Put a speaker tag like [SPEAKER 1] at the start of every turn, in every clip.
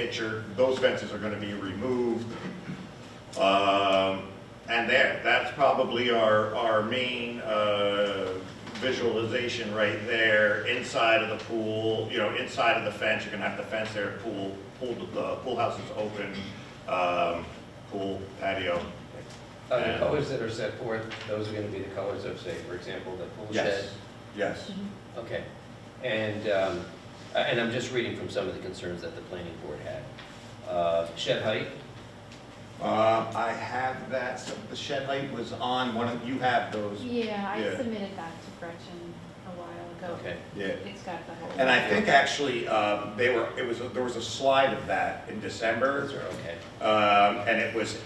[SPEAKER 1] picture, those fences are gonna be removed. Um, and there, that's probably our, our main, uh, visualization right there, inside of the pool, you know, inside of the fence, you're gonna have the fence there, pool, pool, the pool house is open, um, pool, patio.
[SPEAKER 2] Are Uh, the
[SPEAKER 1] Yeah.
[SPEAKER 2] colors that are set forth, those are gonna be the colors of, say, for example, the pool shed?
[SPEAKER 1] Yes, yes.
[SPEAKER 2] Okay, and, um, a- and I'm just reading from some of the concerns that the planning board had. Uh, Shed height,
[SPEAKER 1] Um, I have that, so the shed light was on one of, you have those.
[SPEAKER 3] Yeah,
[SPEAKER 1] Yeah.
[SPEAKER 3] I submitted that to Gretchen a while ago.
[SPEAKER 2] okay,
[SPEAKER 1] Yeah.
[SPEAKER 3] It's got the whole.
[SPEAKER 1] And I think actually, um, they were, it was, there was a slide of that in
[SPEAKER 2] those
[SPEAKER 1] December.
[SPEAKER 2] are okay.
[SPEAKER 1] Um, and it was,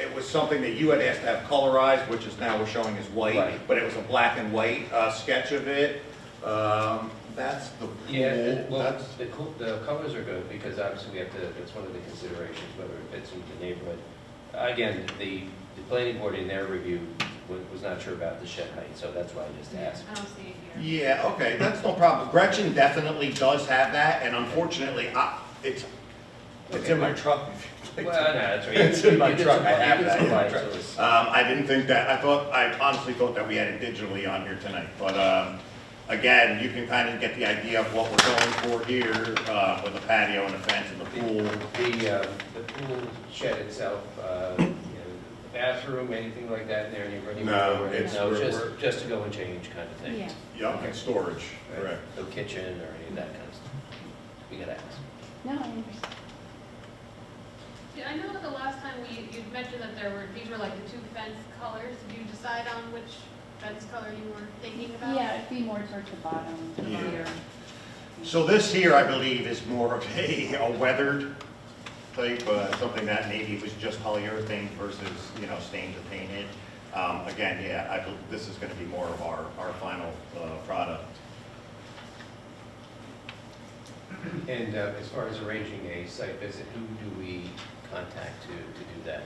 [SPEAKER 1] it was something that you had asked to have colorized, which is now we're showing as white.
[SPEAKER 2] Right.
[SPEAKER 1] But it was a black and white, uh, sketch of it. Um, that's the pool.
[SPEAKER 2] Yeah, well,
[SPEAKER 1] That's-
[SPEAKER 2] the cool, the colors are good, because obviously we have to, that's one of the considerations, whether it fits into the neighborhood. Again, the, the planning board in their review was, was not sure about the shed height, so that's why I just asked.
[SPEAKER 3] I don't see it here.
[SPEAKER 1] Yeah, okay, that's no problem. Gretchen definitely does have that, and unfortunately, I, it's, it's in my truck. if you'd like to-
[SPEAKER 2] Well, no, that's right.
[SPEAKER 1] It's in my
[SPEAKER 2] You did
[SPEAKER 1] truck, I
[SPEAKER 2] supply- you
[SPEAKER 1] have
[SPEAKER 2] did
[SPEAKER 1] that in my
[SPEAKER 2] supply,
[SPEAKER 1] truck.
[SPEAKER 2] so it's-
[SPEAKER 1] Um, I didn't think that, I thought, I honestly thought that we had it digitally on here tonight, but, um, again, you can kind of get the idea of what we're going for here, uh, with the patio and the fence and the pool.
[SPEAKER 2] The, uh, the pool shed itself, uh, you know, the bathroom, anything like that in there, any running
[SPEAKER 1] No,
[SPEAKER 2] water?
[SPEAKER 1] it's-
[SPEAKER 2] No,
[SPEAKER 1] we're-
[SPEAKER 2] just,
[SPEAKER 1] we're-
[SPEAKER 2] just to go and change kind of thing?
[SPEAKER 3] Yeah.
[SPEAKER 1] Yep, and storage,
[SPEAKER 2] Right?
[SPEAKER 1] correct.
[SPEAKER 2] No kitchen or any of that kind of stuff? We gotta ask.
[SPEAKER 3] No, I understand.
[SPEAKER 4] Yeah, I know that the last time we, you'd mentioned that there were, these were like the two fence colors. Did you decide on which fence color you were thinking about?
[SPEAKER 3] Yeah, it'd be more towards the bottom
[SPEAKER 1] Yeah.
[SPEAKER 3] here.
[SPEAKER 1] So this here, I believe, is more of a, a weathered type, uh, something that maybe was just polyurethane versus, you know, stained or painted. Um, again, yeah, I, bel- this is gonna be more of our, our final, uh, product.
[SPEAKER 2] And uh, as far as arranging a site visit, who do we contact to, to do that?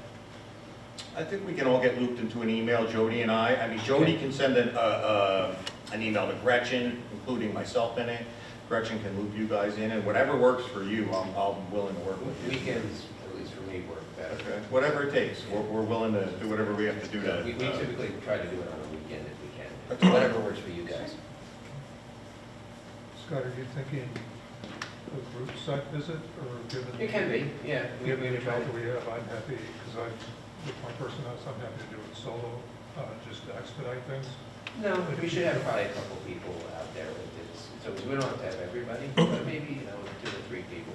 [SPEAKER 1] I think we can all get looped into an email, Jody and I. I mean, Jody can send an, uh, uh, an email to Gretchen, including myself in it. Gretchen can loop you guys in, and whatever works for you, I'm, I'm willing to work with you.
[SPEAKER 2] Weekends, at least for me, work better.
[SPEAKER 1] Okay, whatever it takes, we're, we're willing to do whatever we have to do to.
[SPEAKER 2] We we
[SPEAKER 1] uh,
[SPEAKER 2] typically try to do it on a weekend if we
[SPEAKER 1] Okay.
[SPEAKER 2] can, whatever works for you guys.
[SPEAKER 5] Scott, are you thinking a group site visit or given?
[SPEAKER 2] It can be, yeah. We-
[SPEAKER 5] Given
[SPEAKER 2] we
[SPEAKER 5] the
[SPEAKER 2] try to-
[SPEAKER 5] amount that we have, I'm happy, because I, with my personality, I'm happy to do it solo, uh, just to expedite things.
[SPEAKER 2] No, we should have probably a couple people out there with this, so we don't have to have everybody, but maybe, you know, two or three people.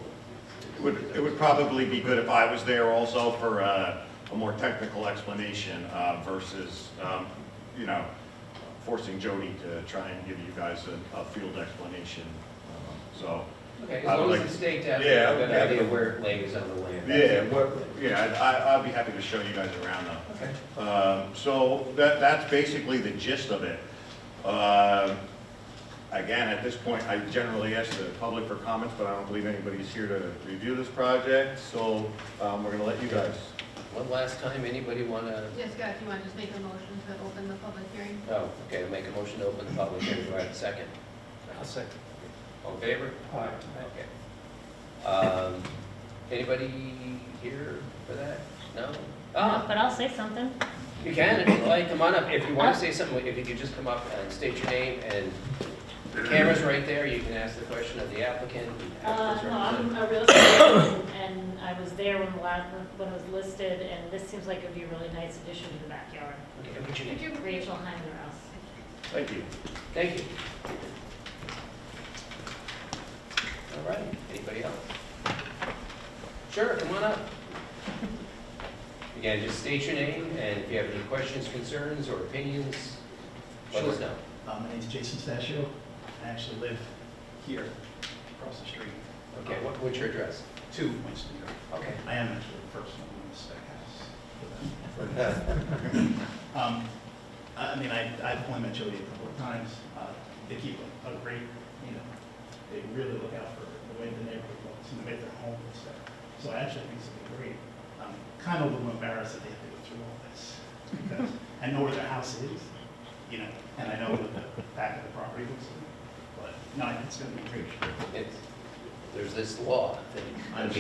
[SPEAKER 1] It would, it would probably be good if I was there also for uh, a more technical explanation uh, versus, um, you know, forcing Jody to try and give you guys a, a field explanation, um, so.
[SPEAKER 2] Okay, as
[SPEAKER 1] I would
[SPEAKER 2] long as
[SPEAKER 1] like-
[SPEAKER 2] the state has
[SPEAKER 1] Yeah,
[SPEAKER 2] a good
[SPEAKER 1] yeah.
[SPEAKER 2] idea where it lays on the land. that's
[SPEAKER 1] Yeah,
[SPEAKER 2] it.
[SPEAKER 1] what, yeah, I'd- I, I'd be happy to show you guys around though.
[SPEAKER 2] Okay,
[SPEAKER 1] Um, so that, that's basically the gist of it. Um again, at this point, I generally ask the public for comments, but I don't believe anybody's here to review this project, so, um, we're gonna let you guys.
[SPEAKER 2] one last time, anybody want to,
[SPEAKER 4] Yes, Scott, if you want to just make a motion to open the public hearing?
[SPEAKER 2] oh, okay, make a motion to open the public hearing, do I have a second? I'll second. All in favor?
[SPEAKER 5] Aye.
[SPEAKER 2] Okay. Um, Anybody here for that? No? Ah,
[SPEAKER 6] But I'll say something.
[SPEAKER 2] You can, if you'd like, come on up. If you want to say something, if you could just come up and state your name, and the camera's right there, you can ask the question of the applicant. and
[SPEAKER 6] Uh,
[SPEAKER 2] afterwards
[SPEAKER 6] no, I'm
[SPEAKER 2] represent.
[SPEAKER 6] a real estate agent, and I was there when the lot, when it was listed, and this seems like it'd be a really nice addition to the backyard.
[SPEAKER 2] Okay, what's your
[SPEAKER 4] Could
[SPEAKER 2] name?
[SPEAKER 4] you,
[SPEAKER 6] Rachel Heimer House.
[SPEAKER 1] Thank you.
[SPEAKER 2] Thank you. All right, anybody else? Sure, come on up. Again, just state your name, and if you have any questions, concerns, or opinions, let us
[SPEAKER 7] Sure.
[SPEAKER 2] know.
[SPEAKER 7] Uh, My name's Jason Stasio. I actually live here, across the street,
[SPEAKER 2] Okay, what- what's your address?
[SPEAKER 7] two Winston Drive.
[SPEAKER 2] Okay.
[SPEAKER 7] I am actually the first one in this big house. Um, I I mean, I, I've only met Jody a couple of times. Uh, They keep a a great, you know, they really look out for the way the neighborhood looks and the way their home looks there. So I actually think it's gonna be great. I'm kind of a little embarrassed that they have to go through all this because I know where their house is, you know, and I know what the back of the property looks like. But no, I think it's gonna be great.
[SPEAKER 2] It's- There's this law that
[SPEAKER 7] I